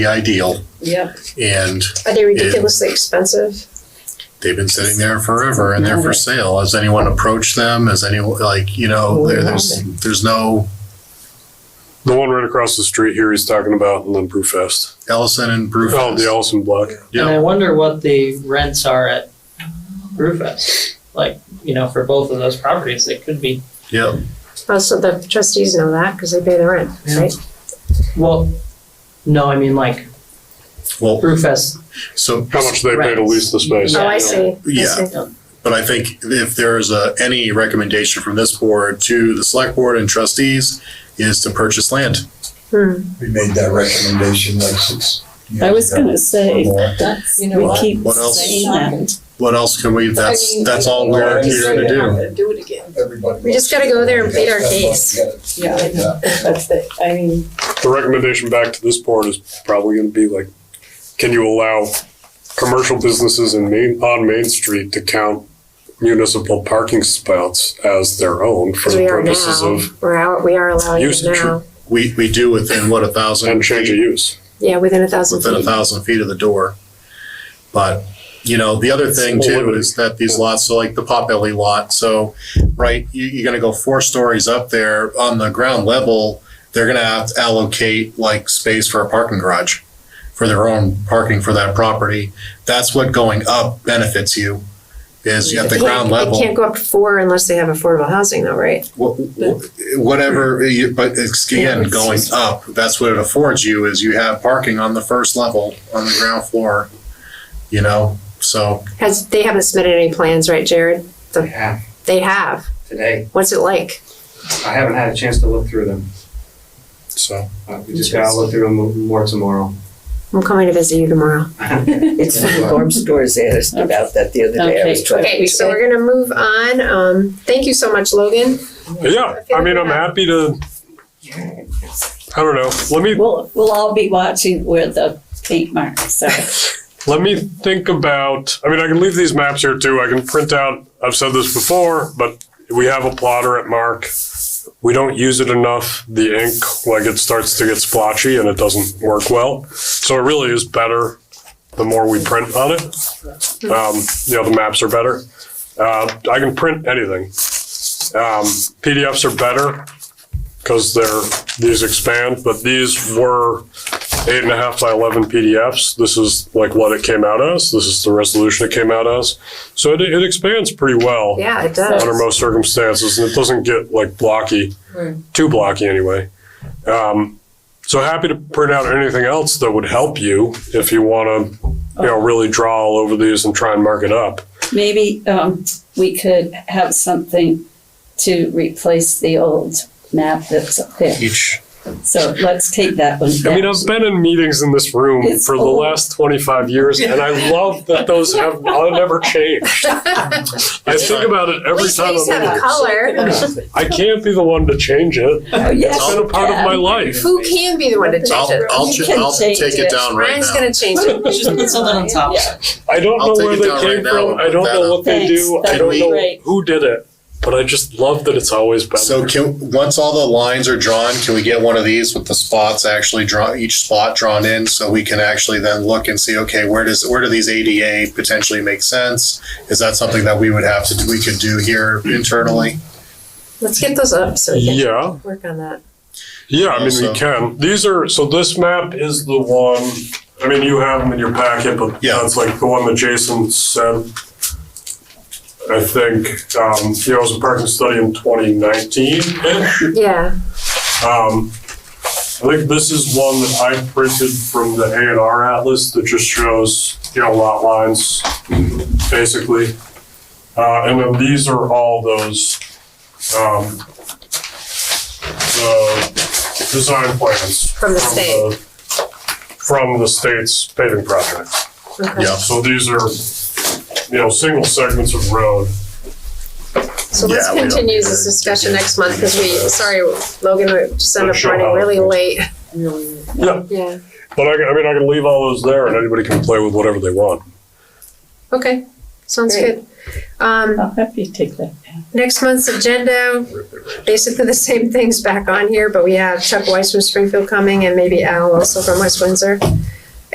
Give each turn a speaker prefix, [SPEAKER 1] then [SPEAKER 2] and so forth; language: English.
[SPEAKER 1] be ideal.
[SPEAKER 2] Yep.
[SPEAKER 1] And
[SPEAKER 3] Are they ridiculously expensive?
[SPEAKER 1] they've been sitting there forever and they're for sale. Has anyone approached them? Has anyone, like, you
[SPEAKER 2] Oh,
[SPEAKER 1] know, there- there's, there's no
[SPEAKER 4] The one right across the street here he's talking about, and then Brewfest.
[SPEAKER 1] Ellison and
[SPEAKER 4] Oh, the
[SPEAKER 1] Brewfest.
[SPEAKER 4] Allison Block.
[SPEAKER 1] Yeah.
[SPEAKER 5] And I wonder what the rents are at Brewfest. Like, you know, for both of those properties, it could be,
[SPEAKER 1] Yep.
[SPEAKER 3] Also, the trustees know that because they pay the rent, right?
[SPEAKER 5] well, no, I mean like
[SPEAKER 1] Well,
[SPEAKER 5] Brewfest,
[SPEAKER 1] so,
[SPEAKER 4] How much they pay to lease the space?
[SPEAKER 3] Oh, I
[SPEAKER 5] Yeah.
[SPEAKER 3] see. I
[SPEAKER 1] yeah,
[SPEAKER 3] see.
[SPEAKER 1] but I think if there is a, any recommendation from this board to the select board and trustees is to purchase land.
[SPEAKER 3] Hmm.
[SPEAKER 6] We made that recommendation like six years
[SPEAKER 7] I was
[SPEAKER 6] ago.
[SPEAKER 7] gonna say,
[SPEAKER 6] Or-
[SPEAKER 7] that's,
[SPEAKER 2] You know
[SPEAKER 7] we
[SPEAKER 2] what?
[SPEAKER 7] keep
[SPEAKER 1] What else?
[SPEAKER 7] saying that.
[SPEAKER 1] What else can we,
[SPEAKER 2] I
[SPEAKER 1] that's,
[SPEAKER 2] mean,
[SPEAKER 1] that's all we're here to do.
[SPEAKER 2] Do it again.
[SPEAKER 6] Everybody.
[SPEAKER 3] We just gotta go there and plead our case.
[SPEAKER 2] Yeah, I know. That's it. I mean,
[SPEAKER 4] The recommendation back to this board is probably going to be like, can you allow commercial businesses in Main, on Main Street to count municipal parking spouts as their own for
[SPEAKER 3] Because
[SPEAKER 4] the
[SPEAKER 3] we are
[SPEAKER 4] purposes
[SPEAKER 3] now,
[SPEAKER 4] of
[SPEAKER 3] we're out, we are allowing it
[SPEAKER 4] Usage.
[SPEAKER 3] now.
[SPEAKER 1] We, we do within what, a thousand?
[SPEAKER 4] and change of use?
[SPEAKER 3] Yeah, within a thousand
[SPEAKER 1] within a
[SPEAKER 3] feet.
[SPEAKER 1] thousand feet of the door. But, you know, the other thing too is that these lots, so like the Potbelly lot, so, right, you, you're gonna go four stories up there on the ground level, they're gonna have to allocate like space for a parking garage, for their own parking for that property. That's what going up benefits you, is at the
[SPEAKER 3] They
[SPEAKER 1] ground
[SPEAKER 3] can't-
[SPEAKER 1] level
[SPEAKER 3] They can't go up to four unless they have affordable housing though, right?
[SPEAKER 1] wh- wh- whatever, you- but it's again, going up, that's what it affords you is you have parking on the first level, on the ground floor, you know, so
[SPEAKER 3] Has, they haven't submitted any plans, right, Jared?
[SPEAKER 8] I have
[SPEAKER 3] They have.
[SPEAKER 8] today.
[SPEAKER 3] What's it like?
[SPEAKER 8] I haven't had a chance to look through them.
[SPEAKER 1] so.
[SPEAKER 8] Uh, we just gotta look through them more tomorrow. uh,
[SPEAKER 3] I'm coming to visit you tomorrow.
[SPEAKER 9] It's the farm stores asked about that the other day. I was
[SPEAKER 7] Okay.
[SPEAKER 9] trying
[SPEAKER 3] Okay,
[SPEAKER 9] to
[SPEAKER 3] so
[SPEAKER 9] say.
[SPEAKER 3] we're gonna move on. Um, thank you so much, Logan.
[SPEAKER 4] Yeah, I mean, I'm happy to, I don't know, let me,
[SPEAKER 7] We'll, we'll all be watching where the tape marks are.
[SPEAKER 4] Let me think about, I mean, I can leave these maps here too. I can print out, I've said this before, but we have a plotter at Mark. We don't use it enough. The ink, like it starts to get splotchy and it doesn't work well. So it really is better the more we print on it. Um, you know, the maps are better. Uh, I can print anything. Um, PDFs are better because they're, these expand, but these were eight and a half by 11 PDFs. This is like what it came out as. This is the resolution it came out as. So it, it expands pretty well
[SPEAKER 3] Yeah, it
[SPEAKER 4] under
[SPEAKER 3] does.
[SPEAKER 4] most circumstances, and it doesn't get like blocky, too blocky anyway. Um, so happy to print out anything else that would help you if you want to, you know, really draw all over these and try and mark it up.
[SPEAKER 7] Maybe, um, we could have something to replace the old map that's up there.
[SPEAKER 1] Each,
[SPEAKER 7] So let's take that one
[SPEAKER 4] I mean,
[SPEAKER 7] down.
[SPEAKER 4] I've been in meetings in this room
[SPEAKER 7] It's
[SPEAKER 4] for
[SPEAKER 7] old.
[SPEAKER 4] the last 25 years, and I love that those have never changed. I think about it
[SPEAKER 3] At
[SPEAKER 4] every
[SPEAKER 3] least
[SPEAKER 4] time
[SPEAKER 3] these
[SPEAKER 4] I'm
[SPEAKER 3] have
[SPEAKER 4] in here.
[SPEAKER 3] color.
[SPEAKER 4] I can't be the one to change it.
[SPEAKER 7] Oh, yes,
[SPEAKER 4] It's been a part of
[SPEAKER 7] yeah.
[SPEAKER 4] my life.
[SPEAKER 3] Who can be the one to change
[SPEAKER 1] I'll,
[SPEAKER 3] it?
[SPEAKER 1] I'll,
[SPEAKER 7] You
[SPEAKER 1] ch-
[SPEAKER 7] can
[SPEAKER 1] I'll
[SPEAKER 7] change
[SPEAKER 1] take it
[SPEAKER 7] it.
[SPEAKER 1] down right
[SPEAKER 3] Ryan's
[SPEAKER 1] now.
[SPEAKER 3] gonna change it.
[SPEAKER 2] just put something on top.
[SPEAKER 4] I don't
[SPEAKER 1] I'll
[SPEAKER 4] know
[SPEAKER 1] take
[SPEAKER 4] where
[SPEAKER 1] it
[SPEAKER 4] they
[SPEAKER 1] down right
[SPEAKER 4] came
[SPEAKER 1] now
[SPEAKER 4] from.
[SPEAKER 1] and
[SPEAKER 4] I don't
[SPEAKER 1] put
[SPEAKER 4] know
[SPEAKER 1] that
[SPEAKER 4] what they
[SPEAKER 7] Thanks,
[SPEAKER 4] do. I
[SPEAKER 7] that'd
[SPEAKER 4] don't
[SPEAKER 7] be
[SPEAKER 4] know
[SPEAKER 7] great.
[SPEAKER 4] who did it, but I just love that it's always been.
[SPEAKER 1] So can, once all the lines are drawn, can we get one of these with the spots actually drawn, each spot drawn in? So we can actually then look and see, okay, where does, where do these ADA potentially make sense? Is that something that we would have to, we could do here internally?
[SPEAKER 3] Let's get those up so we can
[SPEAKER 4] yeah,
[SPEAKER 3] work on that.
[SPEAKER 4] yeah. I mean,
[SPEAKER 1] Also-
[SPEAKER 4] we can. These are so. This map is the one. I mean, you have them in your packet, but
[SPEAKER 1] Yeah.
[SPEAKER 4] yeah, it's like the one that Jason sent. I think um, you know, it was a parking study in 2019 ish.
[SPEAKER 3] Yeah,
[SPEAKER 4] Um, I think this is one that I printed from the A and R atlas that just shows, you know, lot lines, basically. Uh, and then these are all those, um, the design plans.
[SPEAKER 3] From the state.
[SPEAKER 4] the- From the state's paving project.
[SPEAKER 3] okay.
[SPEAKER 1] Yeah.
[SPEAKER 4] So these are, you know, single segments of road.
[SPEAKER 1] Yeah,
[SPEAKER 3] So let's
[SPEAKER 1] we don't
[SPEAKER 3] continue
[SPEAKER 1] need
[SPEAKER 3] this
[SPEAKER 1] to-
[SPEAKER 3] discussion next month because we, sorry, Logan, we just ended up
[SPEAKER 4] Sure.
[SPEAKER 3] running really late.
[SPEAKER 4] Yeah,
[SPEAKER 3] Yeah,
[SPEAKER 4] but I, can- I mean, I can leave all those there and anybody can play with whatever they want.
[SPEAKER 3] okay. sounds good. Um,
[SPEAKER 7] I'll have you take that down.
[SPEAKER 3] next month's agenda, basically the same things back on here, but we have Chuck Weiss from Springfield coming and maybe Al also from West Windsor.